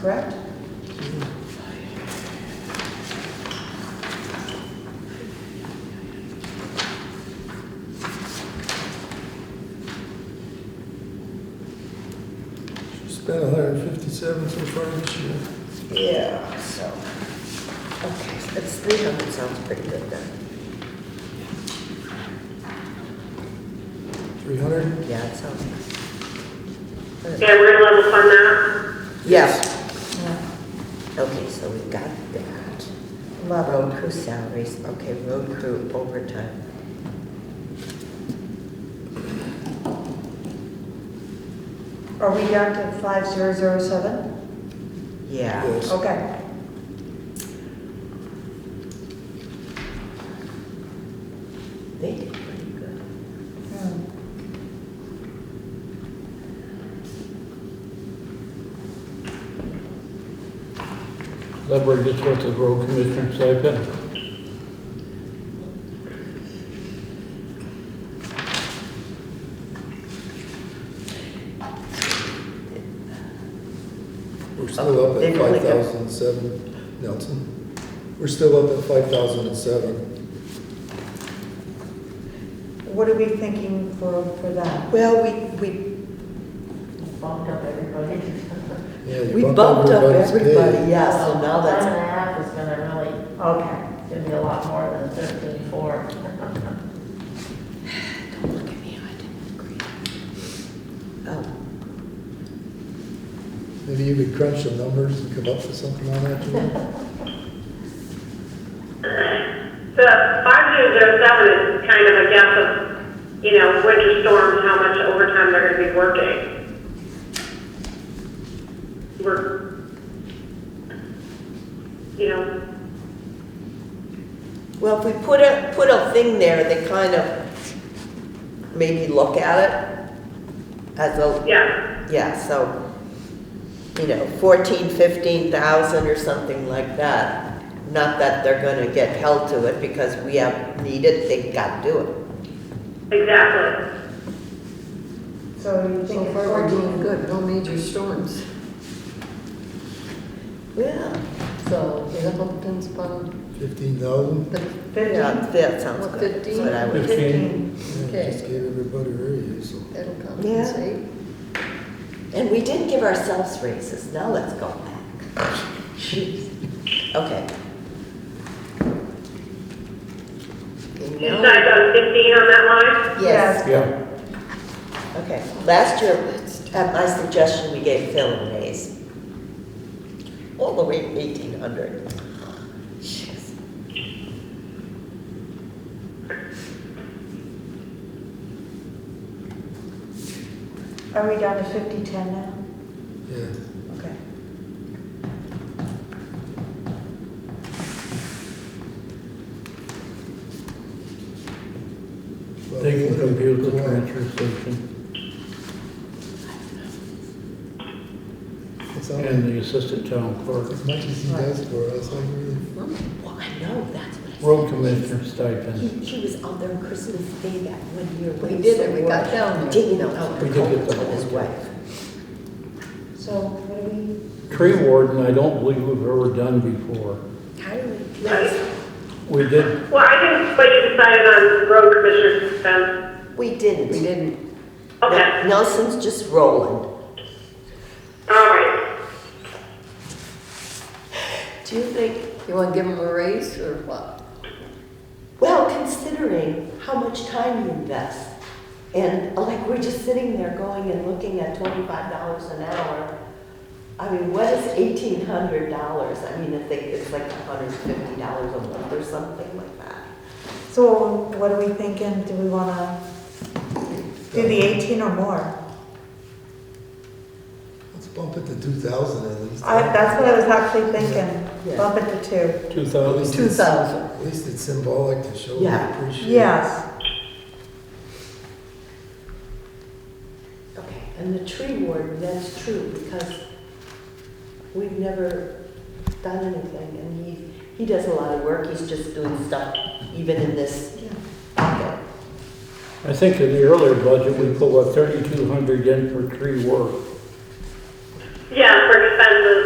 correct? Spent hundred and fifty-seven so far this year. Yeah, so, okay, that's three hundred, sounds pretty good then. Three hundred? Yeah, it sounds nice. Yeah, we're gonna level fund that. Yes. Okay, so we got that. Road crew salaries, okay, road crew overtime. Are we down to five zero zero seven? Yeah, Yes. Okay. they did pretty good. Hmm. That brings us with the road commissioner stipend. We're still up They at really five go. thousand and seven, Nelson. We're still up at five thousand and seven. What are we thinking for, for that? Well, we, we, bumped up everybody. Yeah, you we bumped up everybody's pay. everybody, yeah, so Oh, now Five and that's, a half is gonna really Okay. give you a lot more than thirteen four. oh, Maybe you could crunch the numbers and come up with something on that, Julie? The five zero zero seven is kind of a guess of, you know, winter storms, how much overtime they're gonna be working. We're, you know, well, if we put a, put a thing there, they kind of maybe look at it as a, yeah, Yeah, so, you know, fourteen, fifteen thousand or something like that. Not that they're gonna get held to it because we have needed, they gotta do it. exactly. So you think So it's far, we're doing fourteen? good, no major storms. Yeah, So the Huffington's bound, Fifteen thousand? the yeah, fifteen, that sounds good. That's what I would- Fifteen. Yeah, just Okay. gave everybody a raise, so. that'll compensate. And we did give ourselves raises, now let's go back. Jeez. Okay, Okay, You now, decided on fifteen on that line? yes, Yeah. okay. Last year, at my suggestion, we gave Phil a raise. All the way to eighteen hundred. Jeez. Are we down to fifty ten now? Yeah. Okay. Well, They can we'll compute the go on. transfer station It's all- and the assistant town clerk. As much as he does for us, I really, Well, I know, that's what I said. Road commissioner stipend. He, he was out there on Christmas Day that one year. when We he did was it, we so got worried, down there. Digging out We the did culverts get the with his whole wife. So what do we, Tree warden, I don't believe we've ever done before. Yes, We did, Well, I think, but you decided on road commissioner's expense. we didn't. we didn't, Okay, N- Nelson's just rolling. all right. Do you think, you wanna give them a raise or what? well, considering how much time you invest, and uh, like, we're just sitting there going and looking at twenty-five dollars an hour. I mean, what is eighteen hundred dollars? I mean, I think it's like hundred and fifty dollars a month or something like that. so what are we thinking? Do we wanna do the eighteen or more? let's bump it to two thousand at least. I, that's what I was actually thinking, Yeah. bump it to two. two At thousand, least Two it's- thousand. At least it's symbolic to show we Yeah. appreciate. Yes, Okay, and the tree warden, that's true, because we've never done anything, and he, he does a lot of work, he's just doing stuff, even in this pocket. I think in the earlier budget, we put what, thirty-two hundred in for tree work. Yeah, for expenses.